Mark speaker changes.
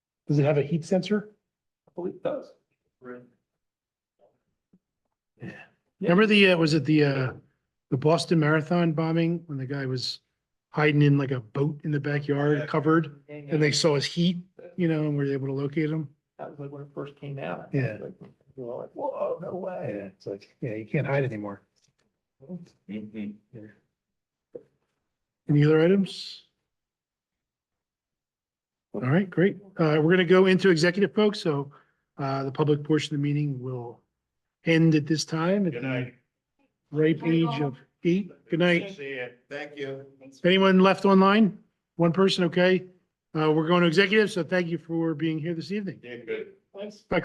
Speaker 1: Does it have a heat sensor?
Speaker 2: I believe it does.
Speaker 1: Remember the, uh, was it the, uh, the Boston Marathon bombing when the guy was hiding in like a boat in the backyard covered? And they saw his heat, you know, and were able to locate him?
Speaker 2: That was like when it first came out.
Speaker 1: Yeah.
Speaker 2: Like, You were like, whoa, no way.
Speaker 1: It's like, yeah, you can't hide anymore.
Speaker 2: Mm-hmm.
Speaker 1: Any other items? All right, great. Uh, we're gonna go into executive folks, so, uh, the public portion of the meeting will end at this time. Good night. Right age of eight. Good night.
Speaker 3: See you. Thank you.
Speaker 1: If Anyone left online? One person, okay. Uh, we're going to executive, so thank you for being here this evening.
Speaker 3: Yeah, good.
Speaker 2: Thanks.